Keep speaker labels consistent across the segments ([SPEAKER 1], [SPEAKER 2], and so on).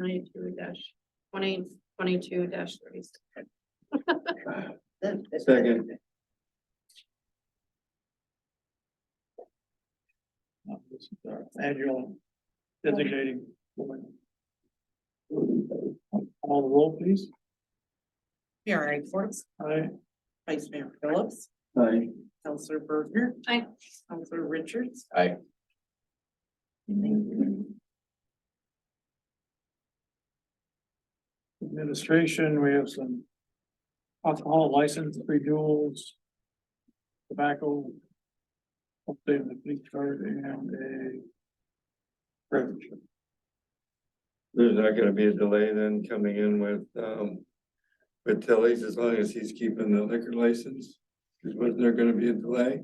[SPEAKER 1] ninety-two twenty, twenty-two dash thirty-six.
[SPEAKER 2] Second.
[SPEAKER 3] Now, this is our Annual designating. woman. All the roll, please.
[SPEAKER 4] Mayor Ikorst,
[SPEAKER 3] Aye.
[SPEAKER 4] Vice Mayor Phillips,
[SPEAKER 2] Aye.
[SPEAKER 4] Counselor Berger.
[SPEAKER 1] Aye.
[SPEAKER 4] Counselor Richards.
[SPEAKER 2] Aye.
[SPEAKER 3] Administration, we have some alcohol license renewals. Tobacco. Updating the fleet card and a. beverage.
[SPEAKER 2] There's not gonna be a delay then coming in with, um, with Tilly's as long as he's keeping the liquor license? Cause wasn't there gonna be a delay?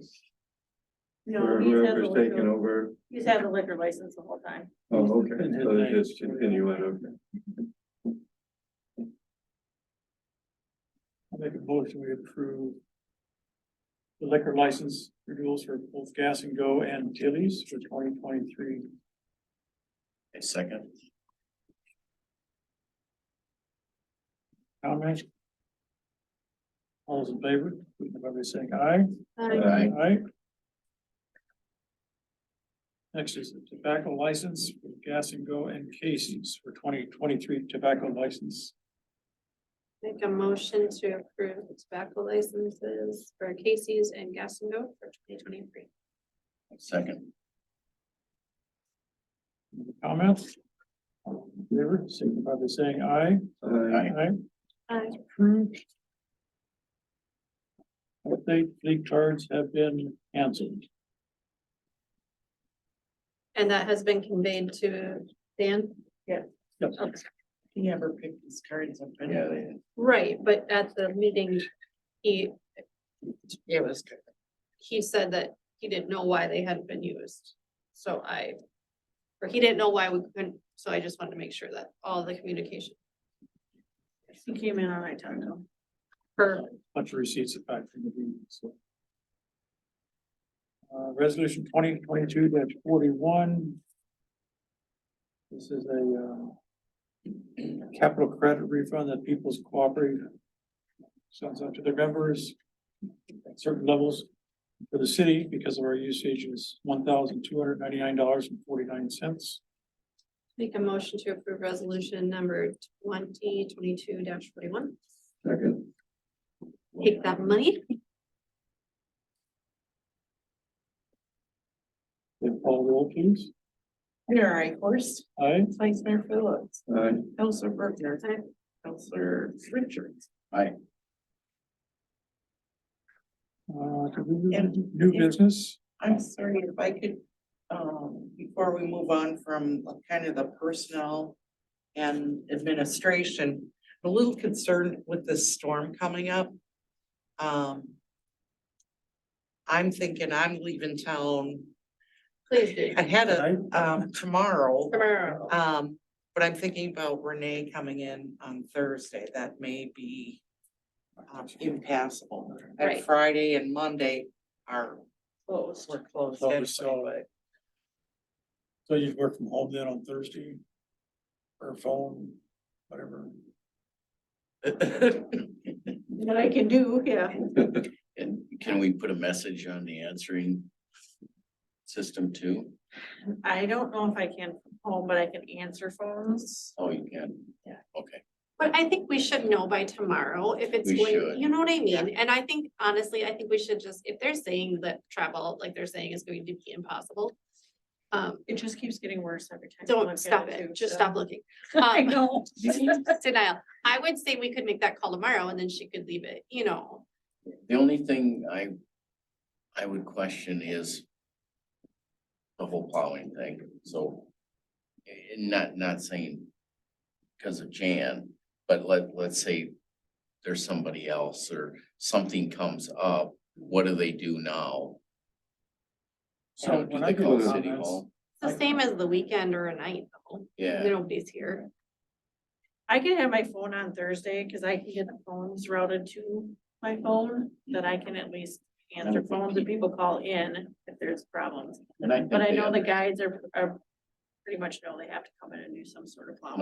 [SPEAKER 5] No,
[SPEAKER 2] Or
[SPEAKER 5] he's had the
[SPEAKER 2] whoever's taking
[SPEAKER 5] liquor,
[SPEAKER 2] over?
[SPEAKER 5] he's had the liquor license the whole time.
[SPEAKER 2] Oh, okay, so they just continue it, okay.
[SPEAKER 3] I'll make a motion, we approve. The liquor license renewals for both Gas and Go and Tilly's for twenty twenty-three.
[SPEAKER 6] A second.
[SPEAKER 3] Comments? All those in favor, please, everybody saying aye.
[SPEAKER 2] Aye.
[SPEAKER 3] Aye. Next is the tobacco license for Gas and Go and Casey's for twenty twenty-three tobacco license.
[SPEAKER 1] Make a motion to approve the tobacco licenses for Casey's and Gas and Go for twenty twenty-three.
[SPEAKER 6] Second.
[SPEAKER 3] Comments? All those in Favor, signify by saying aye.
[SPEAKER 2] Aye.
[SPEAKER 3] Aye.
[SPEAKER 1] Aye.
[SPEAKER 3] approved. Update, league cards have been canceled.
[SPEAKER 1] And that has been conveyed to Dan?
[SPEAKER 3] Yep.
[SPEAKER 1] Okay.
[SPEAKER 4] He never picked his cards up. and-
[SPEAKER 6] Yeah, they,
[SPEAKER 1] Right, but at the meeting, he,
[SPEAKER 4] Yeah, It was good.
[SPEAKER 1] he said that he didn't know why they hadn't been used. So I, or he didn't know why we couldn't, so I just wanted to make sure that all the communication
[SPEAKER 5] He came in on I talked to him.
[SPEAKER 1] per
[SPEAKER 3] bunch of receipts back from the meeting, so. Uh, resolution twenty twenty-two forty-one. This is a, uh, capital credit refund that people's cooperative sends out to their members at certain levels for the city because of our usage is one thousand two hundred ninety-nine dollars and forty-nine cents.
[SPEAKER 1] Make a motion to approve resolution number twenty twenty-two forty-one.
[SPEAKER 2] Second.
[SPEAKER 1] Take that money.
[SPEAKER 3] Then Paul roll please.
[SPEAKER 4] Mayor Ikorst,
[SPEAKER 3] Aye.
[SPEAKER 4] Vice Mayor Phillips,
[SPEAKER 2] Aye.
[SPEAKER 4] Counselor Berger.
[SPEAKER 1] Aye.
[SPEAKER 4] Counselor Richards.
[SPEAKER 3] Uh, could we do
[SPEAKER 4] And-
[SPEAKER 3] new business?
[SPEAKER 4] I'm sorry if I could, um, before we move on from kind of the personnel and administration, I'm a little concerned with this storm coming up. Um. I'm thinking I'm leaving town.
[SPEAKER 1] Please do.
[SPEAKER 4] I had a,
[SPEAKER 3] Tonight?
[SPEAKER 4] um, tomorrow.
[SPEAKER 1] Tomorrow.
[SPEAKER 4] Um, but I'm thinking about Renee coming in on Thursday. That may be um, impassable.
[SPEAKER 1] Right.
[SPEAKER 4] And Friday and Monday are
[SPEAKER 5] Close.
[SPEAKER 4] we're closed.
[SPEAKER 3] So we
[SPEAKER 4] anyway,
[SPEAKER 3] saw-
[SPEAKER 4] but-
[SPEAKER 3] So you work from home then on Thursday? Or phone, whatever.
[SPEAKER 5] What I can do, yeah.
[SPEAKER 6] And can we put a message on the answering system too?
[SPEAKER 5] I don't know if I can from home, but I can answer phones.
[SPEAKER 6] Oh, you can?
[SPEAKER 5] Yeah.
[SPEAKER 6] Okay,
[SPEAKER 1] But I think we should know by tomorrow if it's
[SPEAKER 6] We
[SPEAKER 1] going,
[SPEAKER 6] should.
[SPEAKER 1] you know what I mean? And I think honestly, I think we should just, if they're saying that travel, like they're saying is going to be impossible. Um,
[SPEAKER 5] It just keeps getting worse every time. you look at
[SPEAKER 1] don't stop
[SPEAKER 5] too,
[SPEAKER 1] it. Just
[SPEAKER 5] so.
[SPEAKER 1] stop looking.
[SPEAKER 5] I
[SPEAKER 1] Um,
[SPEAKER 5] know.
[SPEAKER 1] Denial. I would say we could make that call tomorrow and then she could leave it, you know,
[SPEAKER 6] the only thing I, I would question is the whole plowing thing, so eh, not, not saying because of Jan, but let, let's say there's somebody else or something comes up, what do they do now? So
[SPEAKER 3] Uh,
[SPEAKER 6] do
[SPEAKER 3] when
[SPEAKER 6] they
[SPEAKER 3] I go
[SPEAKER 6] call
[SPEAKER 3] to
[SPEAKER 6] city
[SPEAKER 3] comments-
[SPEAKER 6] hall?
[SPEAKER 1] it's the same as the weekend or a night though.
[SPEAKER 6] Yeah.
[SPEAKER 1] Nobody's here.
[SPEAKER 5] I can have my phone on Thursday because I can get the phones routed to my phone, that I can at least answer phones and people call in if there's problems.
[SPEAKER 6] And I think
[SPEAKER 5] But I
[SPEAKER 6] they
[SPEAKER 5] know the
[SPEAKER 6] under-
[SPEAKER 5] guides are, are pretty much know they have to come in and do some sort of. plowing.